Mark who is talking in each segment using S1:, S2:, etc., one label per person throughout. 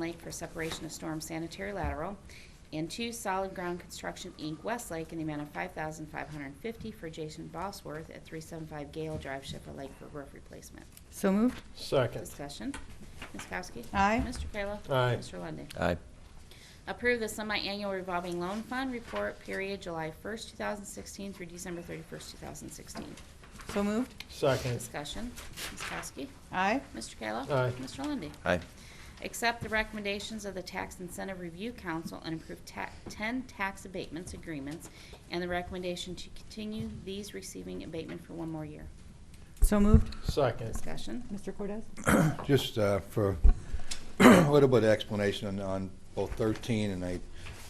S1: Lake for separation of storm sanitary lateral, and two Solid Ground Construction, Inc., Westlake, in the amount of $5,550 for Jason Bosworth at 375 Gale Drive, Sheffield Lake, for roof replacement.
S2: So moved.
S3: Second.
S1: Discussion. Ms. Kowski?
S2: Aye.
S1: Mr. Kayla?
S3: Aye.
S1: Mr. Lundey?
S4: Aye.
S1: Approve the semi-annual revolving loan fund report period July 1st, 2016 through December 31st, 2016.
S2: So moved.
S3: Second.
S1: Discussion. Ms. Kowski?
S2: Aye.
S1: Mr. Kayla?
S3: Aye.
S1: Mr. Lundey?
S4: Aye.
S1: Accept the recommendations of the Tax Incentive Review Council and approve ta- 10 tax abatements agreements and the recommendation to continue these receiving abatement for one more year.
S2: So moved.
S3: Second.
S1: Discussion.
S2: Mr. Cordez?
S5: Just uh, for a little bit of explanation on- on both 13, and I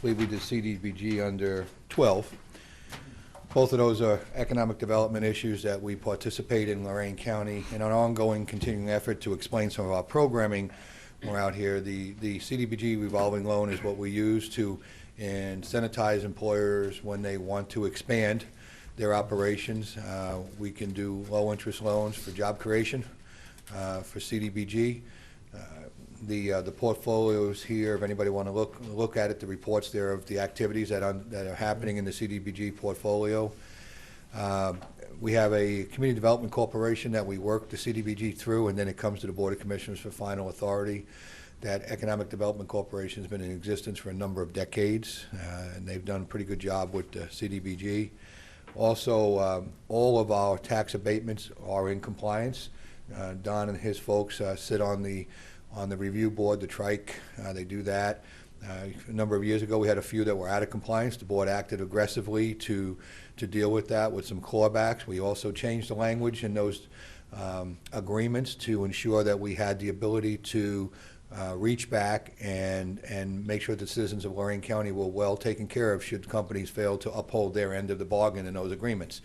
S5: believe we did CDBG under 12. Both of those are economic development issues that we participate in Lorraine County in an ongoing continuing effort to explain some of our programming. when We're out here, the the CDBG revolving loan is what we use to incentivize employers when they want to expand their operations. Uh, We can do low-interest loans for job creation uh, for CDBG. Uh, The, uh, the portfolios here, if anybody want to look, look at it, the reports there of the activities that are, that are happening in the CDBG portfolio. Uh, We have a Community Development Corporation that we work the CDBG through, and then it comes to the Board of Commissioners for final authority. That Economic Development Corporation's been in existence for a number of decades, uh, and they've done a pretty good job with the CDBG. Also, um, all of our tax abatements are in compliance. Uh, Don and his folks uh, sit on the, on the review board, the trike, uh, they do that. Uh, A number of years ago, we had a few that were out of compliance. The board acted aggressively to, to deal with that with some clawbacks. We also changed the language in those um, agreements to ensure that we had the ability to uh, reach back and, and make sure the citizens of Lorraine County were well taken care of should companies fail to uphold their end of the bargain in those agreements.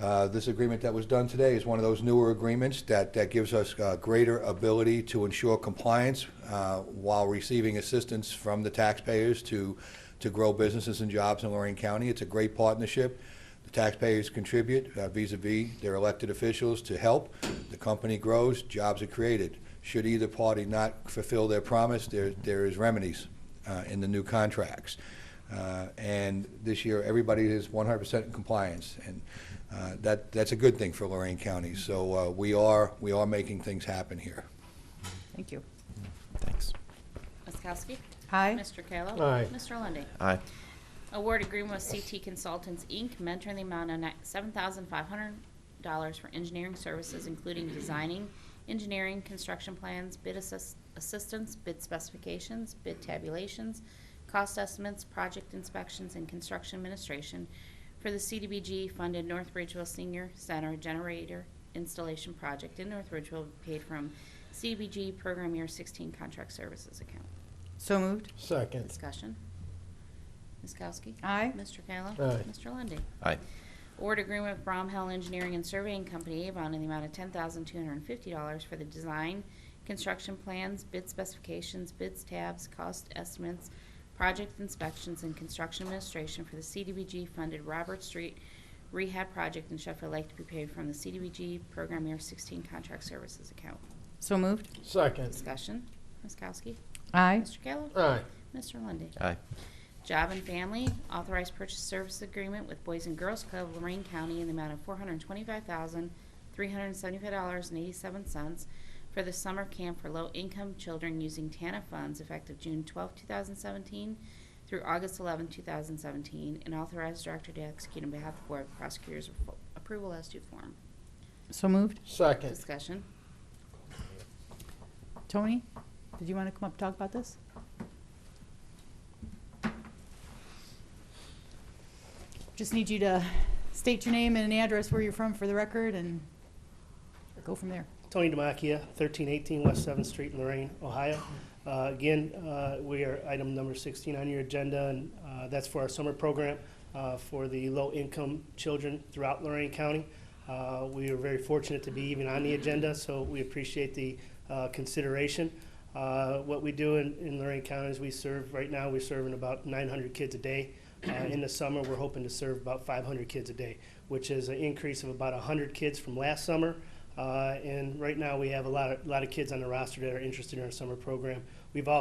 S5: Uh, This agreement that was done today is one of those newer agreements that, that gives us uh, greater ability to ensure compliance uh, while receiving assistance from the taxpayers to, to grow businesses and jobs in Lorraine County. It's a great partnership. The taxpayers contribute uh, vis-à-vis their elected officials to help. The company grows, jobs are created. Should either party not fulfill their promise, there, there is remedies uh, in the new contracts. Uh, And this year, everybody is 100% in compliance, and uh, that, that's a good thing for Lorraine County. So uh, we are, we are making things happen here.
S2: Thank you.
S4: Thanks.
S1: Ms. Kowski?
S2: Aye.
S1: Mr. Kayla?
S3: Aye.
S1: Mr. Lundey?
S4: Aye.
S1: Award agreement with CT Consultants, Inc., mentor in the amount of ni- $7,500 for engineering services, including designing, engineering, construction plans, bid assist- assistance, bid specifications, bid tabulations, cost estimates, project inspections, and construction administration for the CDBG-funded North Ridgeville Senior Center Generator Installation Project in North Ridgeville, paid from CDBG Program Year 16 Contract Services Account.
S2: So moved.
S3: Second.
S1: Discussion. Ms. Kowski?
S2: Aye.
S1: Mr. Kayla?
S3: Aye.
S1: Mr. Lundey?
S4: Aye.
S1: Award agreement with Bromhall Engineering and Surveying Company, Avon, in the amount of $10,250 for the design, construction plans, bid specifications, bids tabs, cost estimates, project inspections, and construction administration for the CDBG-funded Robert Street Rehab Project in Sheffield Lake to be paid from the CDBG Program Year 16 Contract Services Account.
S2: So moved.
S3: Second.
S1: Discussion. Ms. Kowski?
S2: Aye.
S1: Mr. Kayla?
S3: Aye.
S1: Mr. Lundey?
S4: Aye.
S1: Job and Family, authorized purchase service agreement with Boys and Girls Club of Lorraine County in the amount of four hundred twenty-five thousand, three hundred seventy-five dollars and eighty-seven cents for the summer camp for low-income children using TANF funds effective June twelfth, two thousand seventeen through August eleventh, two thousand seventeen, and authorized director to execute on behalf of the Board of Prosecutors of- approval as to form.
S2: So moved.
S3: Second.
S1: Discussion.
S2: Tony, did you want to come up and talk about this? Just need you to state your name and an address where you're from for the record and go from there.
S6: Tony Demakia, 1318 West 7th Street, in Lorraine, Ohio. Uh, Again, uh, we are item number 16 on your agenda, and uh, that's for our summer program uh, for the low-income children throughout Lorraine County. Uh, We are very fortunate to be even on the agenda, so we appreciate the uh, consideration. Uh, What we do in in Lorraine County is we serve, right now, we're serving about 900 kids a day. Uh, In the summer, we're hoping to serve about 500 kids a day, which is an increase of about 100 kids from last summer. Uh, and right now, we have a lot of, lot of kids on the roster that are interested in our summer program. We've also